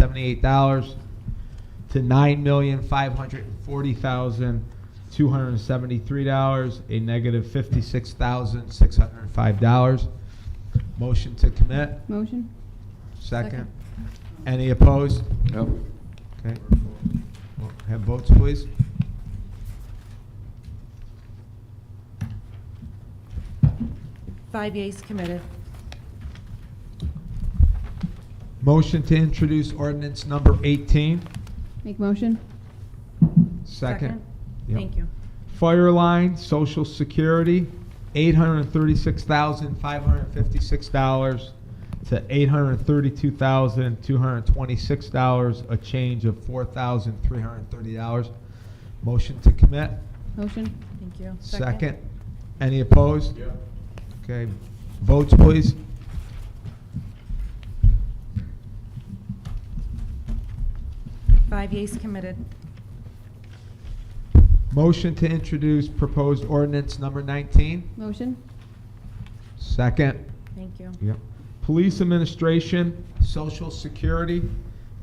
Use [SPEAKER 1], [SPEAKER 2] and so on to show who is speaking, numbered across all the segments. [SPEAKER 1] seventy-eight dollars to nine million five hundred forty thousand two hundred seventy-three dollars, a negative fifty-six thousand six hundred five dollars. Motion to commit,
[SPEAKER 2] Motion?
[SPEAKER 1] second.
[SPEAKER 2] Second.
[SPEAKER 1] Any opposed?
[SPEAKER 3] No.
[SPEAKER 1] Okay. We'll Have votes, please.
[SPEAKER 4] Five yeas committed.
[SPEAKER 1] Motion to introduce ordinance number eighteen,
[SPEAKER 2] Make motion?
[SPEAKER 1] second. Yep.
[SPEAKER 4] Thank you.
[SPEAKER 1] Fire line, social security, eight hundred thirty-six thousand, five hundred fifty-six dollars to eight hundred thirty-two thousand, two hundred twenty-six dollars, a change of four thousand, three hundred thirty dollars. Motion to commit,
[SPEAKER 2] Motion?
[SPEAKER 4] Thank you.
[SPEAKER 1] second. Any opposed? Okay, votes, please.
[SPEAKER 4] Five yeas committed.
[SPEAKER 1] Motion to introduce proposed ordinance number nineteen,
[SPEAKER 2] Motion?
[SPEAKER 1] second.
[SPEAKER 4] Thank you.
[SPEAKER 1] Yep. Police administration, social security,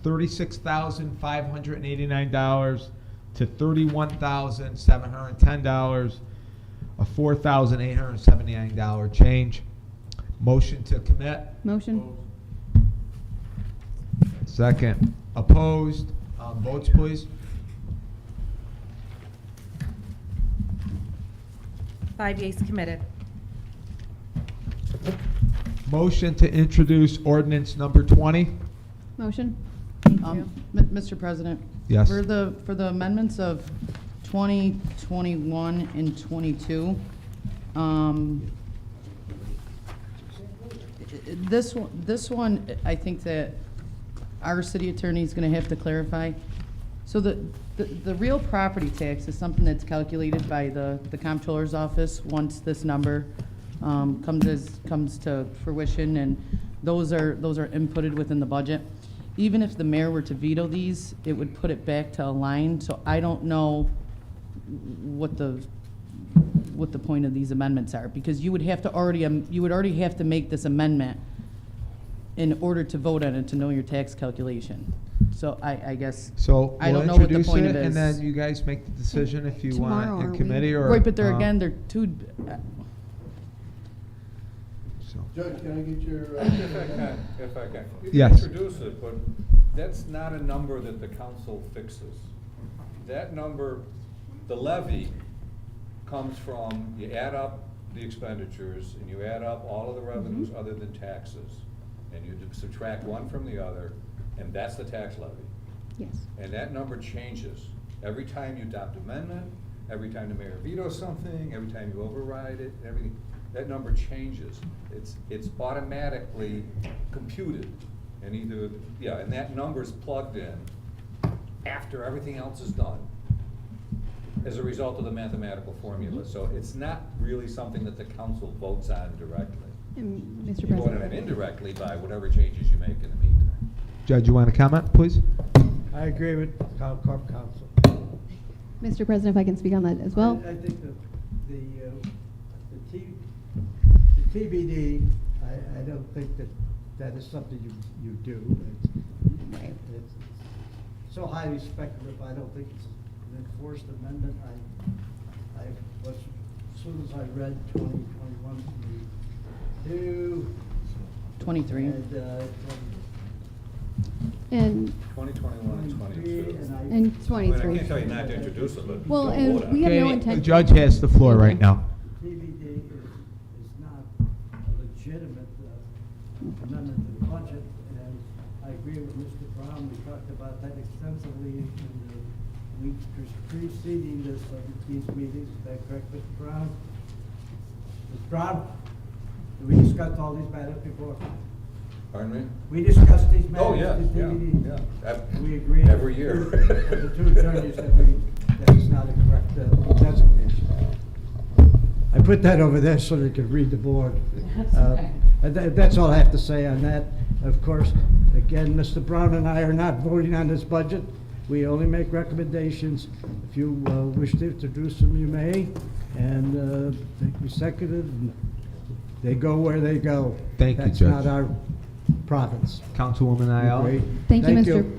[SPEAKER 1] thirty-six thousand five hundred and eighty-nine dollars to thirty-one thousand seven hundred and ten dollars, a four thousand eight hundred and seventy-nine dollar change. Motion to commit,
[SPEAKER 2] Motion?
[SPEAKER 1] second. Opposed, Uh, votes please.
[SPEAKER 4] Five yeas committed.
[SPEAKER 1] Motion to introduce ordinance number twenty.
[SPEAKER 2] Motion?
[SPEAKER 4] Thank you.
[SPEAKER 5] Um, M- Mr. President?
[SPEAKER 1] Yes.
[SPEAKER 5] For the, for the amendments of 20, 21, and 22, um, i- i- this, one- this one, I think that our city attorney is going to have to clarify. So the, the- the real property tax is something that's calculated by the, the comptroller's office once this number um, comes as, comes to fruition, and those are, those are inputted within the budget. Even if the mayor were to veto these, it would put it back to a line, so I don't know what the, what the point of these amendments are, because you would have to already, um, you would already have to make this amendment in order to vote on it, to know your tax calculation. So I, I guess.
[SPEAKER 1] So
[SPEAKER 5] I
[SPEAKER 1] we'll
[SPEAKER 5] don't know what the
[SPEAKER 1] introduce
[SPEAKER 5] point
[SPEAKER 1] it,
[SPEAKER 5] of it
[SPEAKER 1] and
[SPEAKER 5] is.
[SPEAKER 1] then you guys make the decision if you
[SPEAKER 2] Tomorrow,
[SPEAKER 1] want
[SPEAKER 2] aren't
[SPEAKER 1] in
[SPEAKER 2] we?
[SPEAKER 1] committee or.
[SPEAKER 5] Right, but they're,
[SPEAKER 1] um,
[SPEAKER 6] uh-huh.
[SPEAKER 5] again, they're two, uh,
[SPEAKER 1] so.
[SPEAKER 6] Judge, can I get your? uh,
[SPEAKER 7] If I can, if I can. You can
[SPEAKER 1] Yes.
[SPEAKER 7] Introduce it, but that's not a number that the council fixes. That number, the levy, comes from, you add up the expenditures, and you add up all of the revenues other than taxes, and you subtract one from the other, and that's the tax levy.
[SPEAKER 2] Yes.
[SPEAKER 7] And that number changes every time you adopt amendment, every time the mayor vetoes something, every time you override it, everything. That number changes. It's, it's automatically computed and either, yeah, and that number's plugged in after everything else is done as a result of the mathematical formula. So it's not really something that the council votes on directly.
[SPEAKER 2] And Mr.
[SPEAKER 7] You
[SPEAKER 2] President?
[SPEAKER 7] vote on it indirectly by whatever changes you make in the meantime.
[SPEAKER 1] Judge, you want to comment, please?
[SPEAKER 6] I agree with Town Corp Council.
[SPEAKER 2] Mr. President, if I can speak on that as well?
[SPEAKER 6] I I think the, the, uh, the T, the TBD, I, I don't think that that is something you, you do. It's-
[SPEAKER 2] Right.
[SPEAKER 6] It's so highly speculative, I don't think it's an enforced amendment. I, I was, as soon as I read twenty twenty-one, twenty-two,
[SPEAKER 5] twenty-three.
[SPEAKER 6] and, uh,
[SPEAKER 2] And,
[SPEAKER 7] Twenty twenty-one and
[SPEAKER 6] twenty-three,
[SPEAKER 7] twenty-two.
[SPEAKER 6] and I.
[SPEAKER 2] and
[SPEAKER 7] But I
[SPEAKER 2] twenty-three.
[SPEAKER 7] can't tell you not to introduce it, but.
[SPEAKER 2] Well,
[SPEAKER 7] don't
[SPEAKER 2] and
[SPEAKER 7] vote on
[SPEAKER 2] we have
[SPEAKER 7] it.
[SPEAKER 2] no
[SPEAKER 1] Okay, The
[SPEAKER 2] intention-
[SPEAKER 1] judge has the floor right now.
[SPEAKER 6] TBD is, is not a legitimate uh, amendment to the budget, and I agree with Mr. Brown, we talked about that extensively in the weeks preceding this, uh, these meetings, is that correct, Mr. Brown? Mr. Brown, we discussed all these matters before,
[SPEAKER 7] Pardon me?
[SPEAKER 6] we discussed these matters.
[SPEAKER 7] Oh, yeah,
[SPEAKER 6] in
[SPEAKER 7] yeah,
[SPEAKER 6] TBD.
[SPEAKER 7] yeah. Ev-
[SPEAKER 6] We agree.
[SPEAKER 7] Every year.
[SPEAKER 6] The two attorneys that we, that is not a correct uh, designation. I put that over there so you could read the board. Uh, and tha- That's all I have to say on that. Of course, again, Mr. Brown and I are not voting on this budget. We only make recommendations. If you uh, wish to introduce them, you may, and uh, they be seconded, and they go where they go.
[SPEAKER 1] Thank you,
[SPEAKER 6] That's not
[SPEAKER 1] Judge.
[SPEAKER 6] our province.
[SPEAKER 1] Councilwoman Ayala?
[SPEAKER 6] Great.
[SPEAKER 2] Thank you, Mr.